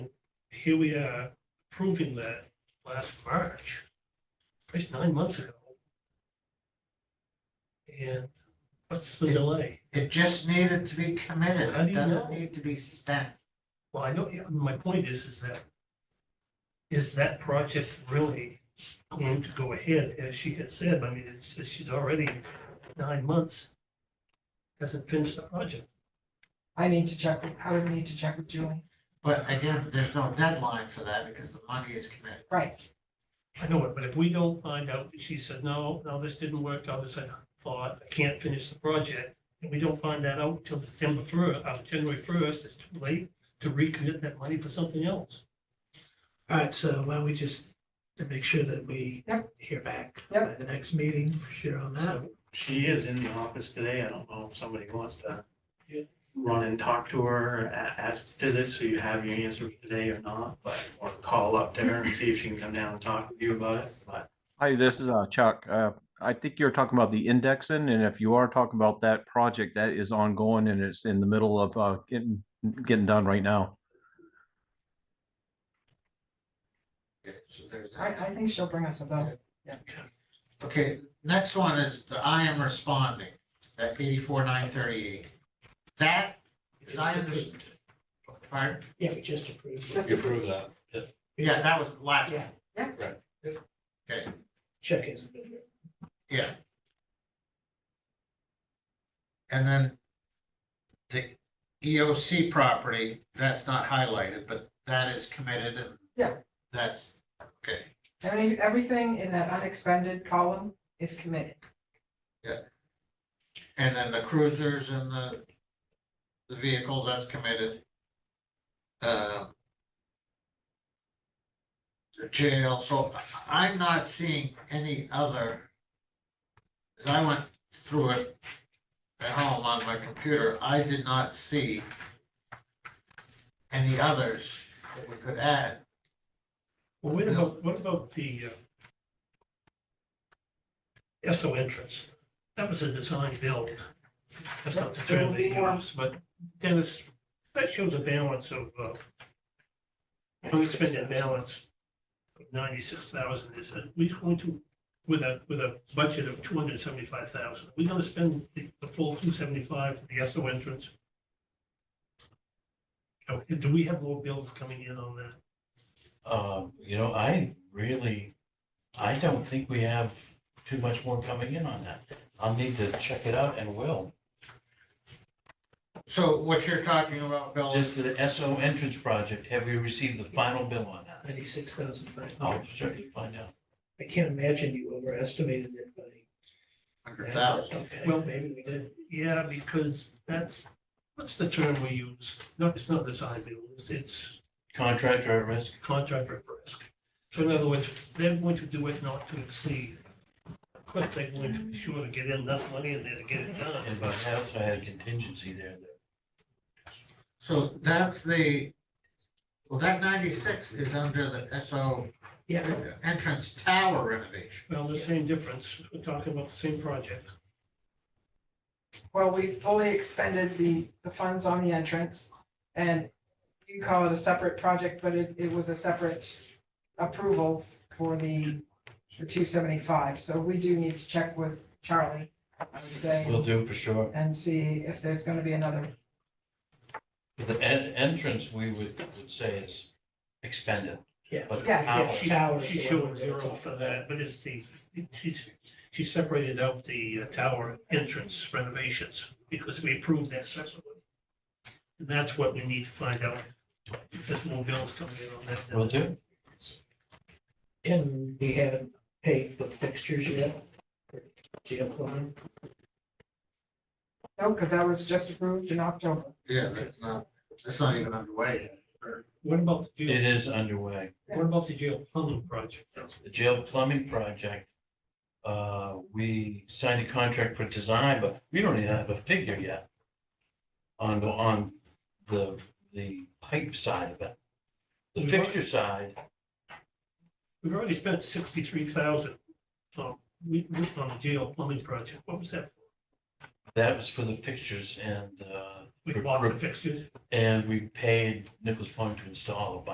here we are approving that last March, Christ, nine months ago. And what's the delay? It just needed to be committed. How do It you doesn't know? need to be spent. Well, I know, yeah, my point is, is that, is that project really going to go ahead, as she had said, I mean, it's, it's- she's already nine months, hasn't finished the project. I need to check, with- I would need to check with Julie. But again, there's no deadline for that because the money is committed. Right, I know it, but if we don't find out, that she said, no, no, this didn't work out as I thought, I can't finish the project, and we don't find that out till December first, uh, January first, it's too late to recommit that money for something else. All right, so why don't we just to make sure that we Yep. hear back Yep. by the next meeting for sure on that. She is in the office today. I don't know if somebody wants to Yeah. run and talk to her a- as to this, so you have your answer today or not, but or call up to her and see if she can come down and talk with you about it, but Hi, this is uh, Chuck. Uh, I think you're talking about the indexing, and if you are talking about that project, that is ongoing and it's in the middle of uh, getting, getting done right now. So there's I, that. I think she'll bring us a bill. Okay, next one is the I am responding, at eighty-four, nine thirty-eight. That, as I understand, pardon? Yeah, we just approved. Just it. You approve that, yeah. Yeah, that was the last one. Yeah. Yeah. Right. Okay, Check is. good. yeah. And then the EOC property, that's not highlighted, but that is committed and Yeah. that's, okay. Every- Everything in that unexpended column is committed. And then the cruisers and the, the vehicles, that's committed. Uh, The jail, so I- I'm not seeing any other. As I went through it at home on my computer, I did not see any others that we could add. Well, what about, what about the uh, SO entrance? That was a design build. That's not the term they use, but Dennis, that shows a balance of, uh, unexpended balance of ninety-six thousand. Is that we going to, with a, with a budget of two hundred seventy-five thousand, we gonna spend the the full two seventy-five for the SO entrance? Uh, Do we have more bills coming in on that? Um, you know, I really, I don't think we have too much more coming in on that. I'll need to check it out and will. So what you're talking about, Bill, Just is the SO entrance project, have we received the final bill on that? Ninety-six thousand five I'll hundred. certainly find out. I can't imagine you overestimated it by. hundred thousand. Okay, Well- maybe we did. Yeah, because that's, what's the term we use? No, it's not design build, it's- it's Contractor at risk, contractor at risk. So in other words, they're going to do it not to exceed. Of course, they're going to be sure to get enough money in there to get it and done. by house, I had contingency there that So that's the, well, that ninety-six is under the SO Yeah, entrance tower renovation. Well, the same difference, we're talking about the same project. Well, we fully expended the, the funds on the entrance. And you call it a separate project, but it, it was a separate approval for the, the two seventy-five. So we do need to check with Charlie, I would we'll say, do for sure. and see if there's gonna be another But The en- entrance, we would, would say is expended. Yeah. But Yes, how- yes, She- Towers, She's the showing one we're zero talking for that, but it's the, she's, she separated out the uh, tower entrance renovations because we approved that separately. And that's what we need to find out, if there's more bills coming in on that. Will do. and we haven't paid the fixtures yet. for Jail plumbing. No, because that was just approved in October. Yeah, that's not, that's not even underway. yet. What about the It jail, is underway. what about the jail plumbing project? the jail plumbing project, uh, we signed a contract for design, but we don't even have a figure yet on the, on the, the pipe side of it. The fixture side, We've already spent sixty-three thousand, um, we, we, on the jail plumbing project, what was that? that was for the fixtures and, uh, We bought the fixtures? and we paid Nichols Plumbing to install a bunch